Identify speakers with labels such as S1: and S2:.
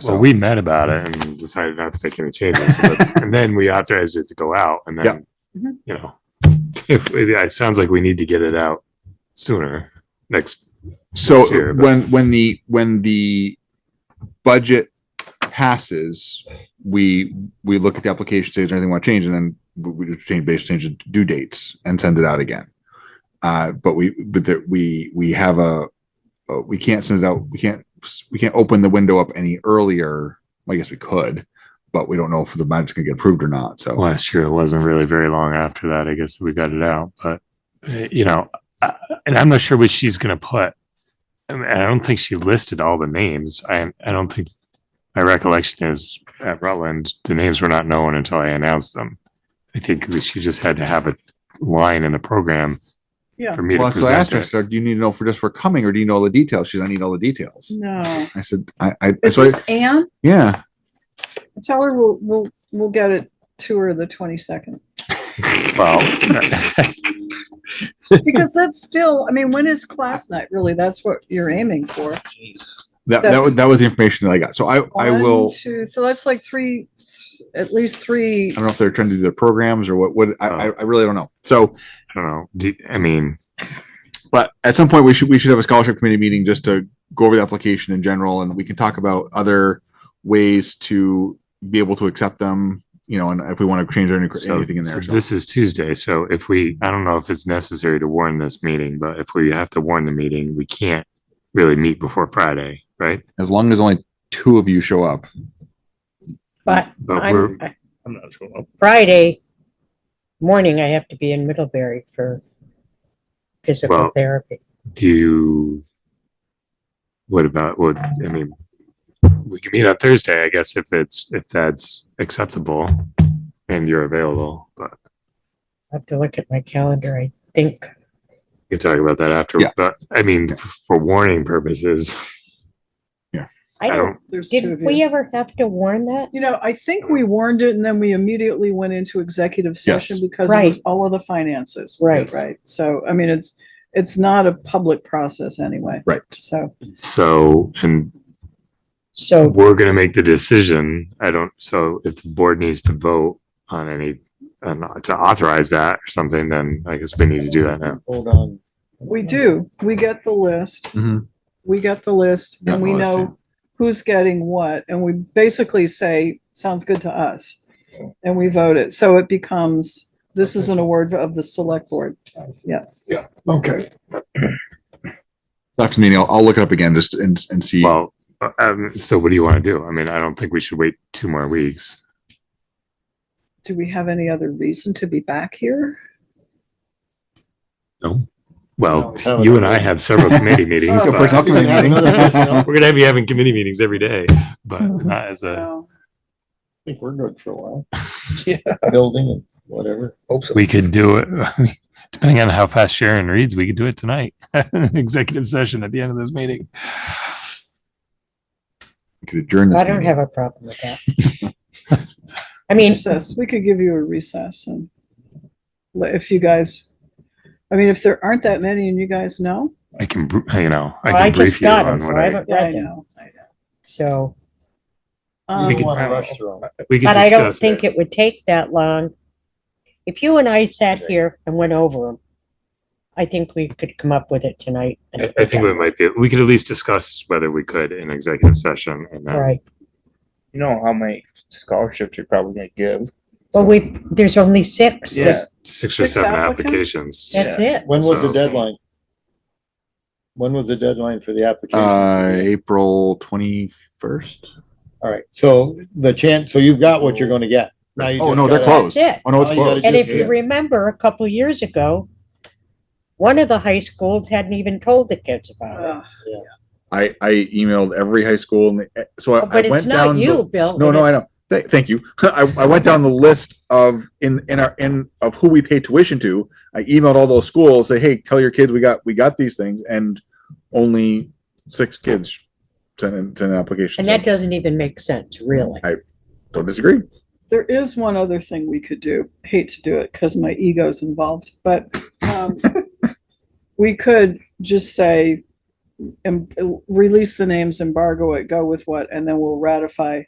S1: So
S2: Well, we met about it and decided not to make any changes. so that- And then we authorized it to go out and then,
S3: Mhm.
S2: you know, it, it sounds like we need to get it out sooner next.
S1: So
S2: year, but-
S1: when, when the, when the budget passes, we, we look at the application stage, anything want to change, and then we- we just change, base change the due dates and send it out again. Uh, but we, but that we, we have a, uh, we can't send it out, we can't, we can't open the window up any earlier. I guess we could, but we don't know if the budget's gonna get approved or not, so.
S2: Last year, it wasn't really very long after that. I guess we got it out, but uh, you know, I, and I'm not sure what she's going to put. I, mean, I don't think she listed all the names. I, I don't think my recollection is at Rutland, the names were not known until I announced them. I think that she just had to have a line in the program
S3: Yeah.
S2: for me
S1: Well,
S2: to
S1: so I asked
S2: present
S1: her, I
S2: it.
S1: said, do you need to know for just for coming or do you know all the details? She's, I need all the details.
S3: No.
S1: I said, I, I,
S3: Is
S1: so, I-
S3: this Anne?
S1: yeah,
S3: Tell her we'll, we'll, we'll get it to her the twenty-second.
S2: Well,
S3: Because that's still, I mean, when is class night? Really, that's what you're aiming for.
S1: that, that was,
S3: That's-
S1: that was the information that I got. So I, I
S3: One,
S1: will,
S3: Two, so that's like three, at least three.
S1: I don't know if they're trying to do their programs or what, what,
S2: Oh.
S1: I, I, I really don't know. So,
S2: I don't know. Do, I mean,
S1: but at some point we should, we should have a scholarship committee meeting just to go over the application in general and we can talk about other ways to be able to accept them, you know, and if we want to change any-
S2: So-
S1: anything in
S2: so
S1: there. so.
S2: This is Tuesday, so if we, I don't know if it's necessary to warn this meeting, but if we have to warn the meeting, we can't really meet before Friday, right?
S1: As long as only two of you show up.
S4: But
S2: But Uh, we're-
S4: I'm, I-
S5: I'm not sure.
S4: Friday morning, I have to be in Middlebury for physical
S2: Well-
S4: therapy.
S2: Do you, what about, what, I mean, we can meet on Thursday, I guess, if it's, if that's acceptable and you're available, but
S4: I have to look at my calendar, I think.
S2: we can talk about that after,
S1: Yeah.
S2: but I mean, f- for warning purposes,
S4: I
S2: I
S4: don't,
S2: don't,
S3: There's two
S4: did
S3: of
S4: we
S3: you.
S4: ever have to warn that?
S3: You know, I think we warned it and then we immediately went into executive session because of
S4: Right.
S3: all of the finances.
S4: Right.
S3: Right. So, I mean, it's, it's not a public process anyway.
S1: Right.
S3: So,
S2: so, and
S4: So,
S2: we're gonna make the decision. I don't, so if the board needs to vote on any, and to authorize that or something, then I guess we need to do that now.
S5: Hold on.
S3: we do, we get the list,
S1: Mhm.
S3: we get the list
S1: Got
S3: and
S1: the
S3: we
S1: list,
S3: know who's getting what. And we basically say, sounds good to us. And we vote it. So it becomes, this is an award of the select board. Yeah.
S5: Okay.
S1: After the meeting, I'll, I'll look it up again just and, and see.
S2: Well, uh, um, so what do you wanna do? I mean, I don't think we should wait two more weeks.
S3: Do we have any other reason to be back here?
S2: No. Well,
S5: No, we
S2: you and
S5: haven't.
S2: I have several committee meetings.
S1: So
S2: but-
S1: personnel
S5: You can
S1: committee
S5: have
S1: meeting.
S5: another personnel-
S2: We're gonna have you having committee meetings every day, but not as a,
S3: No.
S5: I think we're good for a while. Yeah. Building and whatever. Hope so.
S2: we could do it. Depending on how fast Sharon reads, we could do it tonight. Executive session at the end of this meeting.
S1: We Could adjourn this
S4: I don't
S1: meeting.
S4: have a problem with that. I mean,
S3: recess, we could give you a recess and let- if you guys, I mean, if there aren't that many and you guys know.
S2: I can, br- you know, I
S4: Oh, I
S2: can brief
S4: just
S2: you
S4: got them,
S2: on
S4: so
S2: what
S4: I
S2: I,
S4: haven't
S3: Yeah, I
S4: read them.
S3: know, I know.
S4: So,
S2: We
S3: Um,
S2: could-
S5: want to rush through 'em.
S2: we could
S4: but I don't
S2: discuss it.
S4: think it would take that long. If you and I sat here and went over them, I think we could come up with it tonight. and
S2: I, I think we might be, we could at least discuss whether we could in executive session and uh, then
S4: All right.
S5: You know how many scholarships you're probably gonna give.
S4: Well, we, there's only six.
S5: Yeah.
S4: There's-
S2: six or
S3: Six
S2: seven
S3: applicants?
S2: applications.
S4: That's it.
S5: When was the
S2: So-
S5: deadline? When was the deadline for the application?
S1: Uh, April twenty-first?
S5: All right, so the chance, so you've got what you're gonna get. Now you
S1: Oh,
S5: just
S1: no, they're
S5: gotta-
S1: closed.
S4: That's it.
S1: Oh, no, it's
S5: All you gotta
S1: closed.
S4: And if
S5: just-
S4: you remember, a couple of years ago, one of the high schools hadn't even told the kids about
S3: uh,
S1: I, I emailed every high school and eh, so I
S4: it.
S1: I
S4: Oh, But it's
S1: went
S4: not
S1: down.
S4: you,
S1: the-
S4: Bill.
S1: No, no, I
S4: it's-
S1: know. Th- Thank you. I, I went down the list of in, in our, in, of who we pay tuition to. I emailed all those schools, say, hey, tell your kids we got, we got these things and only six kids sent in, sent in applications.
S4: And that doesn't even make sense, really.
S1: Don't disagree.
S3: There is one other thing we could do. Hate to do it because my ego's involved, but um, we could just say, em- release the names, embargo it, go with what, and then we'll ratify